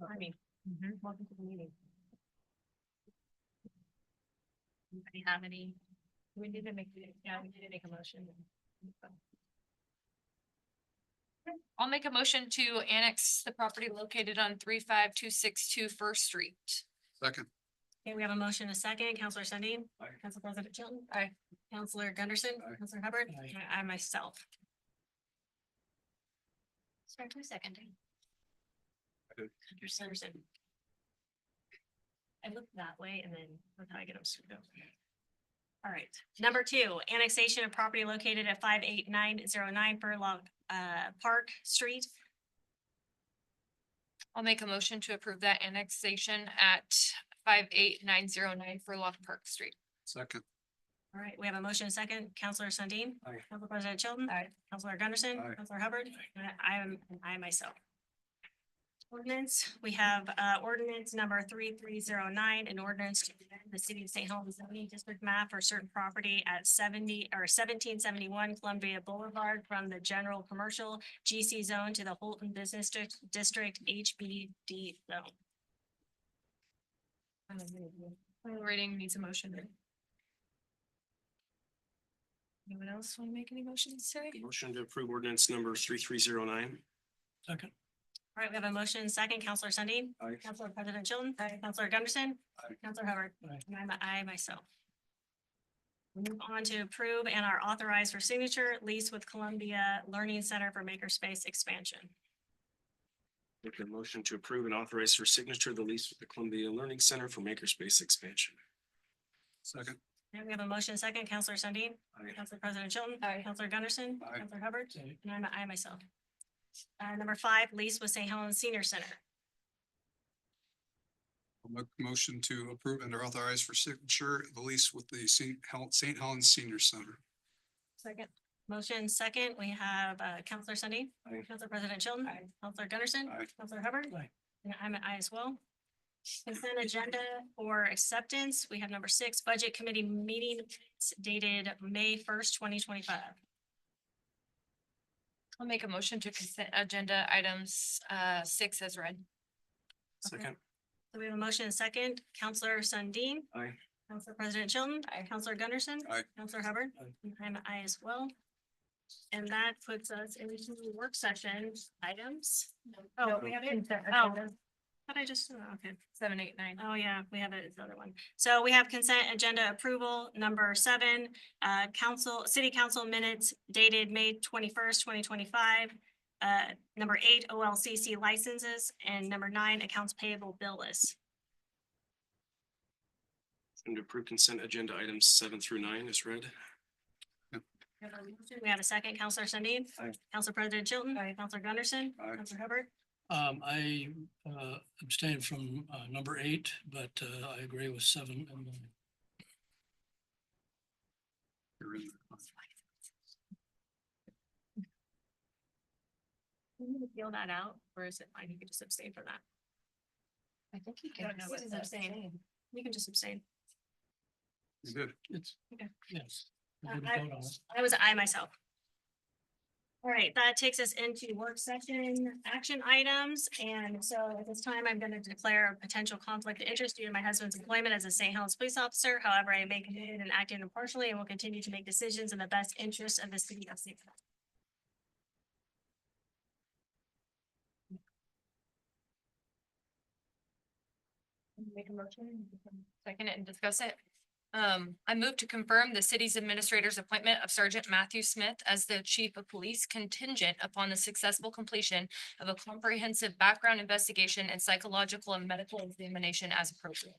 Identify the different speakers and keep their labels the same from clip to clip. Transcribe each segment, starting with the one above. Speaker 1: Harvey. mm-hmm, Welcome to the meeting. Anybody have any? We need to make, yeah, we need to make a motion.
Speaker 2: I'll make a motion to annex the property located on three five two six two First Street.
Speaker 3: Second,
Speaker 1: Okay, we have a motion, a second. Counselor Sundin.
Speaker 3: Aye.
Speaker 1: Council President Chilton.
Speaker 2: Aye.
Speaker 1: Counselor Gunderson.
Speaker 3: Aye.
Speaker 1: Counselor Hubbard.
Speaker 3: Aye.
Speaker 1: and I myself.
Speaker 2: Sorry, two seconding.
Speaker 3: I did.
Speaker 1: Anderson. I look that way and then that's how I get them screwed up. All right, number two, annexation of property located at five eight nine zero nine Burlock uh Park Street.
Speaker 2: I'll make a motion to approve that annexation at five eight nine zero nine Furlong Park Street.
Speaker 3: second,
Speaker 1: All right, we have a motion and second. Counselor Sundin.
Speaker 3: Aye.
Speaker 1: Council President Chilton.
Speaker 2: Aye.
Speaker 1: Counselor Gunderson.
Speaker 3: Aye.
Speaker 1: Counselor Hubbard. and I am, and I myself. Ordinance, we have uh ordinance number three three zero nine, an ordinance to amend the city of St. Helens zoning district map for certain property at seventy or seventeen seventy-one Columbia Boulevard from the general commercial GC zone to the Holton Business District, District HBD zone.
Speaker 2: Final reading needs a motion. Anyone else want to make any motions today?
Speaker 4: Motion to approve ordinance number three three zero nine. Second.
Speaker 1: All right, we have a motion and second. Counselor Sundin.
Speaker 3: Aye.
Speaker 1: Counselor President Chilton. Counselor Gunderson.
Speaker 3: Aye.
Speaker 1: Counselor Hubbard.
Speaker 4: Aye.
Speaker 1: And I'm a I myself. We Move on to approve and are authorized for signature lease with Columbia Learning Center for Makerspace Expansion.
Speaker 4: Make a motion to approve and authorize for signature the lease with the Columbia Learning Center for Makerspace Expansion.
Speaker 3: second,
Speaker 1: And we have a motion and second. Counselor Sundin.
Speaker 4: Aye.
Speaker 1: Counselor President Chilton.
Speaker 2: Aye.
Speaker 1: Counselor Gunderson.
Speaker 3: Aye.
Speaker 1: Counselor Hubbard.
Speaker 4: Aye.
Speaker 1: And I'm a I myself. Uh, number five, lease with St. Helens Senior Center.
Speaker 3: I'll make a motion to approve and are authorized for signature the lease with the Saint Hel- Saint Helens Senior Center.
Speaker 1: Second. Motion second, we have uh Counselor Sundy.
Speaker 4: Aye.
Speaker 1: Counselor President Chilton. Counselor Gunderson.
Speaker 3: Aye.
Speaker 1: Counselor Hubbard.
Speaker 4: Aye.
Speaker 1: And I'm an I as well. Consent agenda for acceptance, we have number six, Budget Committee meeting minutes dated May first, twenty twenty-five.
Speaker 2: I'll make a motion to consent agenda items uh six as read.
Speaker 4: Second.
Speaker 1: So we have a motion and second, Counselor Sundin.
Speaker 4: Aye.
Speaker 1: Counselor President Chilton. Counselor Gunderson.
Speaker 3: Aye.
Speaker 1: Counselor Hubbard.
Speaker 4: Aye.
Speaker 1: And I'm an I as well. And that puts us into the work session items. Oh, we have it? Oh. But I just, oh, okay.
Speaker 2: Seven, eight, nine.
Speaker 1: Oh, yeah, we have it, it's the other one. So we have consent agenda approval number seven, uh, council, city council minutes dated May twenty-first, twenty twenty-five. Uh, number eight, OLCC licenses, and number nine, accounts payable bill list.
Speaker 4: And to approve consent agenda items seven through nine is read.
Speaker 1: We have a motion, We have a second, Counselor Sundin.
Speaker 4: Aye.
Speaker 1: Council President Chilton.
Speaker 2: Aye.
Speaker 1: Counselor Gunderson.
Speaker 3: Aye.
Speaker 1: Counselor Hubbard.
Speaker 5: Um, I uh, abstained from uh, number eight, but uh, I agree with seven and nine.
Speaker 3: You're in.
Speaker 1: Do you need to Feel that out, or is it fine? You can just abstain from that.
Speaker 2: I think you
Speaker 1: I don't know what
Speaker 2: This is
Speaker 1: the-
Speaker 2: abstaining.
Speaker 1: You can just abstain.
Speaker 3: You did.
Speaker 5: It's,
Speaker 1: Okay.
Speaker 5: yes. we
Speaker 1: Uh,
Speaker 5: didn't
Speaker 1: I-
Speaker 5: vote on it.
Speaker 1: I was I myself. All right, that takes us into work session action items. And so at this time, I'm going to declare a potential conflict of interest due to my husband's employment as a St. Helens police officer. However, I may committed and acting impartially and will continue to make decisions in the best interest of the city of St. Helens.
Speaker 2: Make a motion. Second it and discuss it. Um, I move to confirm the city's administrator's appointment of Sergeant Matthew Smith as the chief of police contingent upon the successful completion of a comprehensive background investigation and psychological and medical examination as appropriate.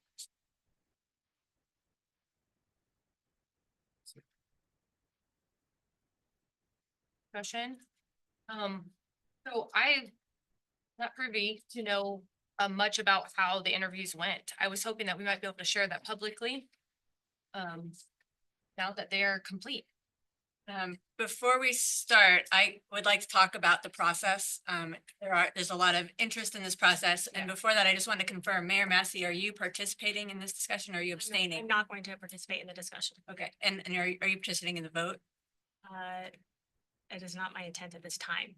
Speaker 2: Question? Um, so I not privy to know uh, much about how the interviews went. I was hoping that we might be able to share that publicly. Um, now that they are complete.
Speaker 6: Um, before we start, I would like to talk about the process. Um, there are, there's a lot of interest in this process. And before that, I just want to confirm, Mayor Massey, are you participating in this discussion? or Are you
Speaker 1: I'm
Speaker 6: abstaining?
Speaker 1: not going to participate in the discussion.
Speaker 6: Okay, and, and are, you- are you participating in the vote?
Speaker 1: Uh, It is not my intent at this time.